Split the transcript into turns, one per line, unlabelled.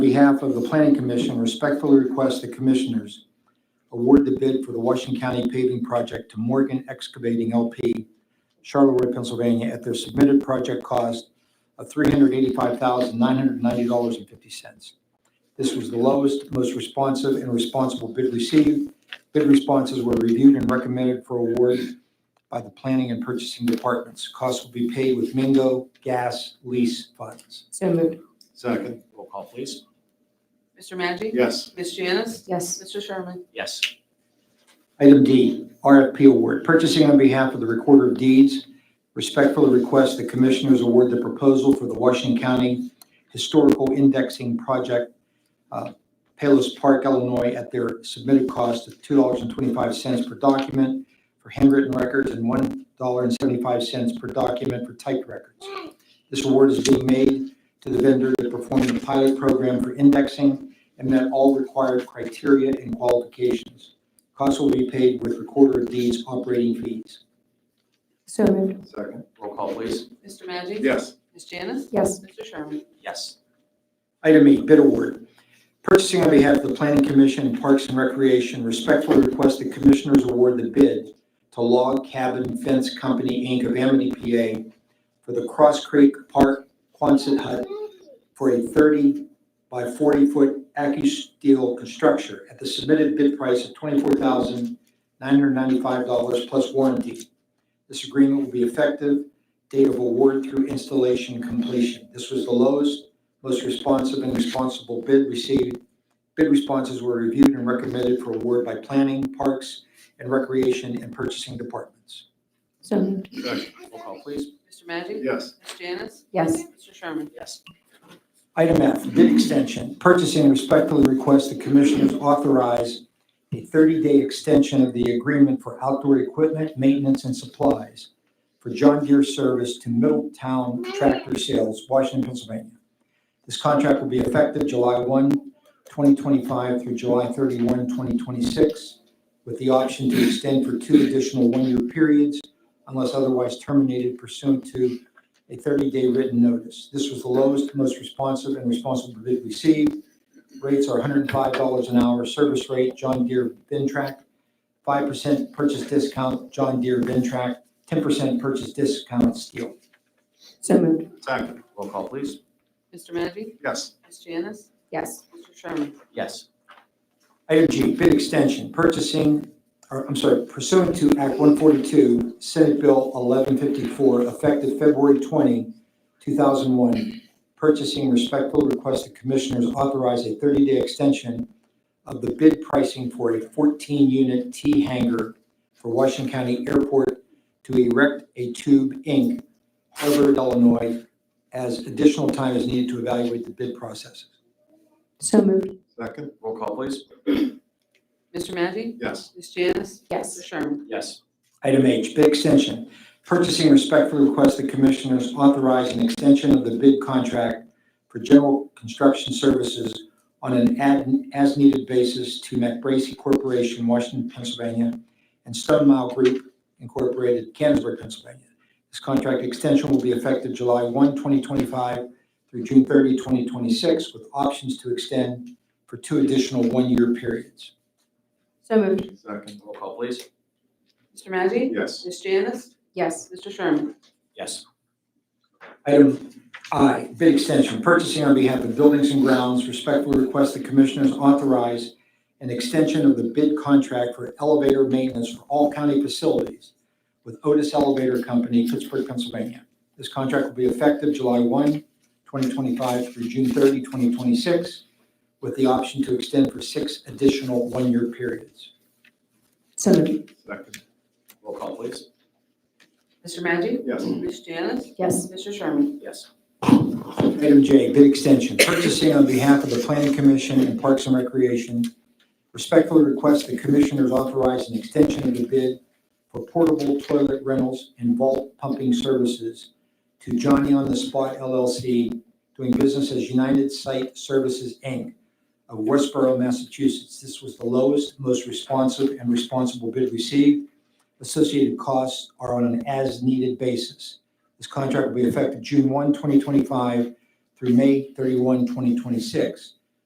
behalf of the Planning Commission, respectfully request the Commissioners award the bid for the Washington County paving project to Morgan Excavating LP, Charleroi, Pennsylvania, at their submitted project cost of $385,990.50. This was the lowest, most responsive, and responsible bid received. Bid responses were reviewed and recommended for award by the Planning and Purchasing Departments. Costs will be paid with Mingo Gas Lease Funds.
So moved.
Second.
Roll call, please.
Mr. Maggi?
Yes.
Ms. Janice?
Yes.
Mr. Sherman?
Yes.
Item D, RFP award, purchasing on behalf of the Recorder of Deeds. Respectfully request the Commissioners award the proposal for the Washington County Historical Indexing Project, uh, Palos Park, Illinois, at their submitted cost of $2.25 per document for handwritten records and $1.75 per document for typed records. This award is being made to the vendor that performed the pilot program for indexing and met all required criteria and qualifications. Costs will be paid with recorder of deeds operating fees.
So moved.
Second.
Roll call, please.
Mr. Maggi?
Yes.
Ms. Janice?
Yes.
Mr. Sherman?
Yes.
Item E, bid award. Purchasing on behalf of the Planning Commission and Parks and Recreation respectfully request the Commissioners award the bid to Log Cabin Fence Company, Inc. of Amity, PA for the Cross Creek Park Quonset Hut for a 30 by 40-foot Steel construction at the submitted bid price of $24,995 plus warranty. This agreement will be effective date of award through installation completion. This was the lowest most responsive and responsible bid received. Bid responses were reviewed and recommended for award by planning, parks, and recreation and purchasing departments.
So moved.
Second.
Roll call, please.
Mr. Maggi?
Yes.
Ms. Janice?
Yes.
Mr. Sherman?
Yes.
Item F, bid extension. Purchasing respectfully requests the commissioners authorize a 30-day extension of the agreement for outdoor equipment, maintenance, and supplies for John Deere service to Middletown Tractor Sales, Washington, Pennsylvania. This contract will be effective July 1, 2025 through July 31, 2026, with the option to extend for two additional one-year periods unless otherwise terminated pursuant to a 30-day written notice. This was the lowest, most responsive and responsible bid received. Rates are $105 an hour, service rate, John Deere Ventrac, 5% purchase discount, John Deere Ventrac, 10% purchase discount, steel.
So moved.
Second.
Roll call, please.
Mr. Maggi?
Yes.
Ms. Janice?
Yes.
Mr. Sherman?
Yes.
Item G, bid extension, purchasing, or I'm sorry, pursuant to Act 142, Senate Bill 1154, effective February 20, 2001, purchasing respectfully request the commissioners authorize a 30-day extension of the bid pricing for a 14-unit T hangar for Washington County Airport to erect a tube, Inc., Harvard, Illinois, as additional time is needed to evaluate the bid processes.
So moved.
Second.
Roll call, please.
Mr. Maggi?
Yes.
Ms. Janice? Mr.
Yes.
Sherman?
Yes.
Item H, bid extension. Purchasing respectfully requests the Commissioners authorize an extension of the bid contract for general construction services on an ad- as-needed basis to MacBracy Corporation, Washington, Pennsylvania, and Stone Mile Group Incorporated, Canonsburg, Pennsylvania. This contract extension will be effective July 1, 2025 through June 30, 2026, with options to extend for two additional one-year periods.
So moved.
Second.
Roll call, please.
Mr. Maggi?
Yes.
Ms. Janice?
Yes.
Mr. Sherman?
Yes.
Item I, bid uh, extension, purchasing on behalf of Buildings and Grounds, respectfully request the Commissioners authorize an extension of the bid contract for elevator maintenance for all county facilities with Otis Elevator Company, Pittsburgh, Pennsylvania. This contract will be effective July 1, 2025 through June 30, 2026, with the option to extend for six additional one-year periods.
So moved.
Second.
Roll call, please.
Mr. Maggi?
Yes.
Ms. Janice?
Yes.
Mr. Sherman?
Yes.
Item J, bid extension, purchasing on behalf of the Planning Commission and Parks and Recreation. Respectfully request the Commissioners authorize an extension of the bid for portable toilet rentals and vault pumping services to Johnny on the Spot LLC, doing business as United Site Services, Inc. of Westboro, Massachusetts. This was the lowest, most responsive and responsible bid received. Associated costs are on an as-needed basis. This contract will be effective June 1, 2025 through May 31, 2026,